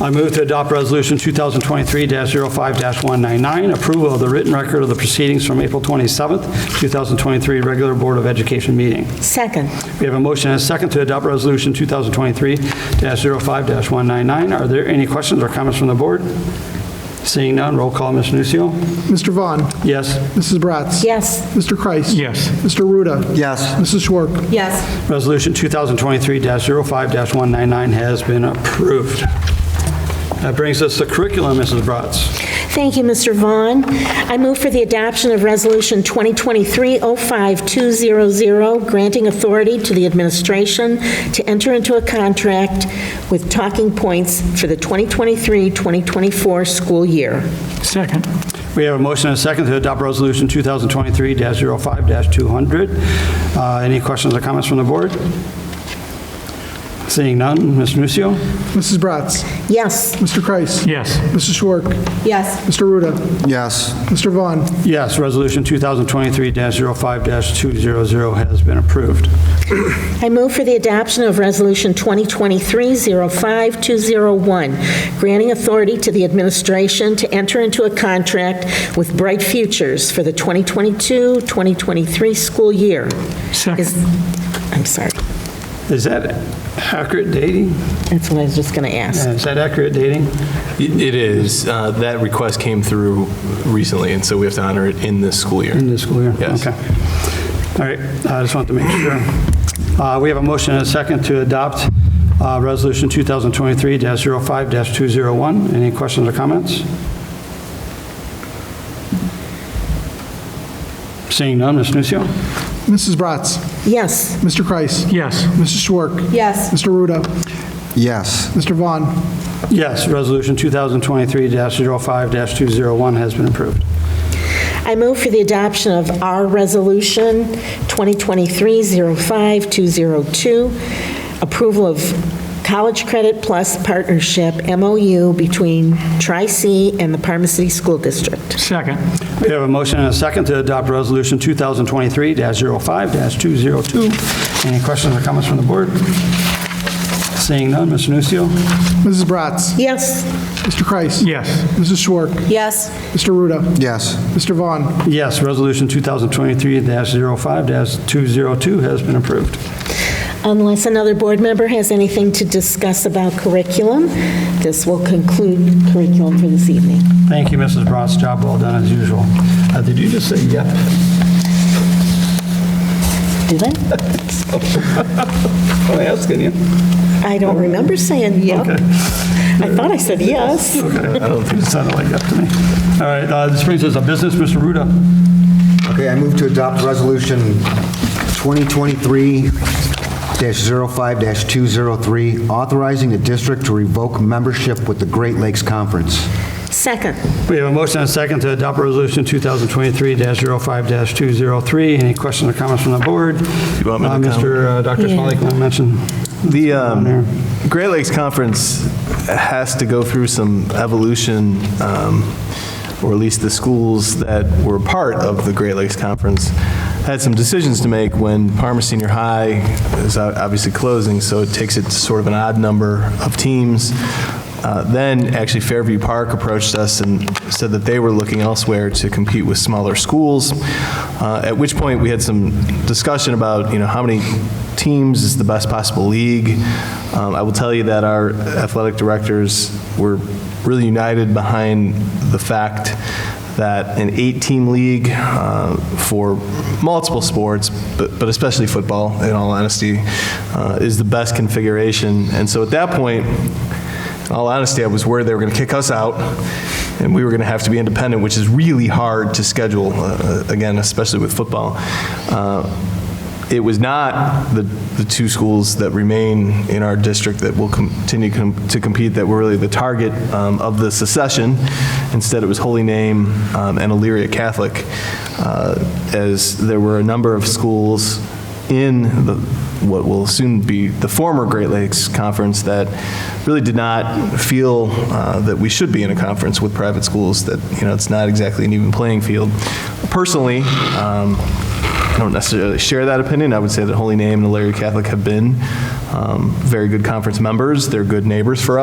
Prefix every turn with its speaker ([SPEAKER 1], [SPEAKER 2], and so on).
[SPEAKER 1] I move to adopt Resolution 2023-05-199, approval of the written record of the proceedings from April 27th, 2023, regular Board of Education meeting.
[SPEAKER 2] Second.
[SPEAKER 1] We have a motion and a second to adopt Resolution 2023-05-199. Are there any questions or comments from the board? Seeing none, roll call, Mr. Nucio.
[SPEAKER 3] Mr. Vaughn.
[SPEAKER 1] Yes.
[SPEAKER 3] Mrs. Bratz.
[SPEAKER 2] Yes.
[SPEAKER 3] Mr. Kreis.
[SPEAKER 4] Yes.
[SPEAKER 3] Mr. Ruda.
[SPEAKER 5] Yes.
[SPEAKER 3] Mrs. Schwark.
[SPEAKER 2] Yes.
[SPEAKER 1] Resolution 2023-05-199 has been approved. That brings us to curriculum, Mrs. Bratz.
[SPEAKER 2] Thank you, Mr. Vaughn. I move for the adoption of Resolution 2023-05200, granting authority to the administration to enter into a contract with Talking Points for the 2023-2024 school year.
[SPEAKER 4] Second.
[SPEAKER 1] We have a motion and a second to adopt Resolution 2023-05-200. Uh, Any questions or comments from the board? Seeing none, Mr. Nucio.
[SPEAKER 3] Mrs. Bratz.
[SPEAKER 2] Yes.
[SPEAKER 3] Mr. Kreis.
[SPEAKER 4] Yes.
[SPEAKER 3] Mrs. Schwark.
[SPEAKER 2] Yes.
[SPEAKER 3] Mr. Ruda.
[SPEAKER 5] Yes.
[SPEAKER 3] Mr. Vaughn.
[SPEAKER 1] Yes, Resolution 2023-05-200 has been approved.
[SPEAKER 2] I move for the adoption of Resolution 2023-05201, granting authority to the administration to enter into a contract with Bright Futures for the 2022-2023 school year.
[SPEAKER 4] Second.
[SPEAKER 2] Is- I'm sorry,
[SPEAKER 1] Is that accurate dating?
[SPEAKER 2] that's what I was just going to ask.
[SPEAKER 1] Is that accurate dating?
[SPEAKER 6] It it is. Uh, That request came through recently, and so we have to honor it in this school year.
[SPEAKER 1] In this school year?
[SPEAKER 6] Yes.
[SPEAKER 1] Okay. All right, I just wanted to make sure. Uh, We have a motion and a second to adopt uh, Resolution 2023-05-201. Any questions or comments? Seeing none, Ms. Nucio?
[SPEAKER 3] Mrs. Bratz.
[SPEAKER 2] Yes.
[SPEAKER 3] Mr. Kreis.
[SPEAKER 4] Yes.
[SPEAKER 3] Mrs. Schwark.
[SPEAKER 2] Yes.
[SPEAKER 3] Mr. Ruda.
[SPEAKER 5] Yes.
[SPEAKER 3] Mr. Vaughn.
[SPEAKER 1] Yes, Resolution 2023-05-201 has been approved.
[SPEAKER 2] I move for the adoption of our Resolution 2023-05202, approval of College Credit Plus Partnership MOU between Tri-C and the Parma City School District.
[SPEAKER 4] Second.
[SPEAKER 1] We have a motion and a second to adopt Resolution 2023-05-202. Any questions or comments from the board? Seeing none, Mr. Nucio?
[SPEAKER 3] Mrs. Bratz.
[SPEAKER 2] Yes.
[SPEAKER 3] Mr. Kreis.
[SPEAKER 4] Yes.
[SPEAKER 3] Mrs. Schwark.
[SPEAKER 2] Yes.
[SPEAKER 3] Mr. Ruda.
[SPEAKER 5] Yes.
[SPEAKER 3] Mr. Vaughn.
[SPEAKER 1] Yes, Resolution 2023-05-202 has been approved.
[SPEAKER 2] Unless another board member has anything to discuss about curriculum, this will conclude curriculum for this evening.
[SPEAKER 1] Thank you, Mrs. Bratz. Job well done, as usual. Uh, Did you just say yep?
[SPEAKER 2] Did I?
[SPEAKER 1] I'm asking you.
[SPEAKER 2] I don't remember saying yep. I thought I said yes.
[SPEAKER 1] I don't think it sounded like yep to me. All right, uh, this brings us to business, Mr. Ruda.
[SPEAKER 5] Okay, I move to adopt Resolution 2023-05-203, authorizing the district to revoke membership with the Great Lakes Conference.
[SPEAKER 2] Second.
[SPEAKER 1] We have a motion and a second to adopt Resolution 2023-05-203. Any questions or comments from the board?
[SPEAKER 6] You want me to
[SPEAKER 1] Uh,
[SPEAKER 6] comment?
[SPEAKER 1] Mr. uh, Dr. Smalley, can I mention?
[SPEAKER 6] The um, Great Lakes Conference has to go through some evolution, um, or at least the schools that were part of the Great Lakes Conference had some decisions to make when Parma Senior High is o- obviously closing, so it takes it to sort of an odd number of teams. Uh, Then, actually, Fairview Park approached us and said that they were looking elsewhere to compete with smaller schools, uh, at which point we had some discussion about, you know, how many teams is the best possible league. Um, I will tell you that our athletic directors were really united behind the fact that an eight-team league uh, for multiple sports, but but especially football, in all honesty, uh, is the best configuration. And so at that point, in all honesty, I was worried they were going to kick us out, and we were going to have to be independent, which is really hard to schedule, uh, again, especially with football. Uh, It was not the, the two schools that remain in our district that will continue com- to compete that were really the target um, of the secession. Instead, it was Holy Name um, and Elyria Catholic, uh, as there were a number of schools in the, what will soon be the former Great Lakes Conference that really did not feel uh, that we should be in a conference with private schools, that, you know, it's not exactly an even playing field. Personally, um, I don't necessarily share that opinion. I would say that Holy Name and Larry Catholic have been um, very good conference members. They're good neighbors for us.